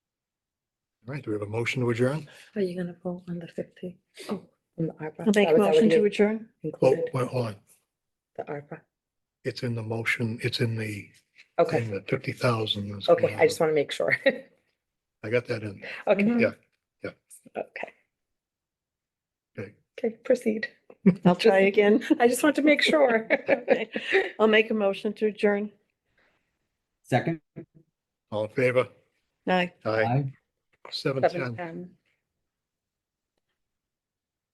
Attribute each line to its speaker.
Speaker 1: right, do we have a motion to adjourn?
Speaker 2: Are you gonna vote on the fifty? Oh, on the ARPA.
Speaker 3: I'll make
Speaker 2: That
Speaker 3: a
Speaker 2: was
Speaker 3: motion to
Speaker 2: already
Speaker 3: adjourn.
Speaker 1: Well,
Speaker 2: included,
Speaker 1: Oh, well, hold on,
Speaker 2: The ARPA.
Speaker 1: it's in the motion, it's in the,
Speaker 2: Okay,
Speaker 1: in the fifty thousand.
Speaker 2: okay, I just want to make sure.
Speaker 1: I got that in.
Speaker 2: Okay.
Speaker 1: Yeah, yeah.
Speaker 2: Okay.
Speaker 1: Okay.
Speaker 2: Okay, proceed.
Speaker 3: I'll try again.
Speaker 2: I just want to make sure.
Speaker 3: Okay. I'll make a motion to adjourn.
Speaker 4: Second?
Speaker 1: All in favor?
Speaker 3: Aye.
Speaker 1: Aye,
Speaker 4: Aye.
Speaker 1: seven ten.
Speaker 2: Seven ten.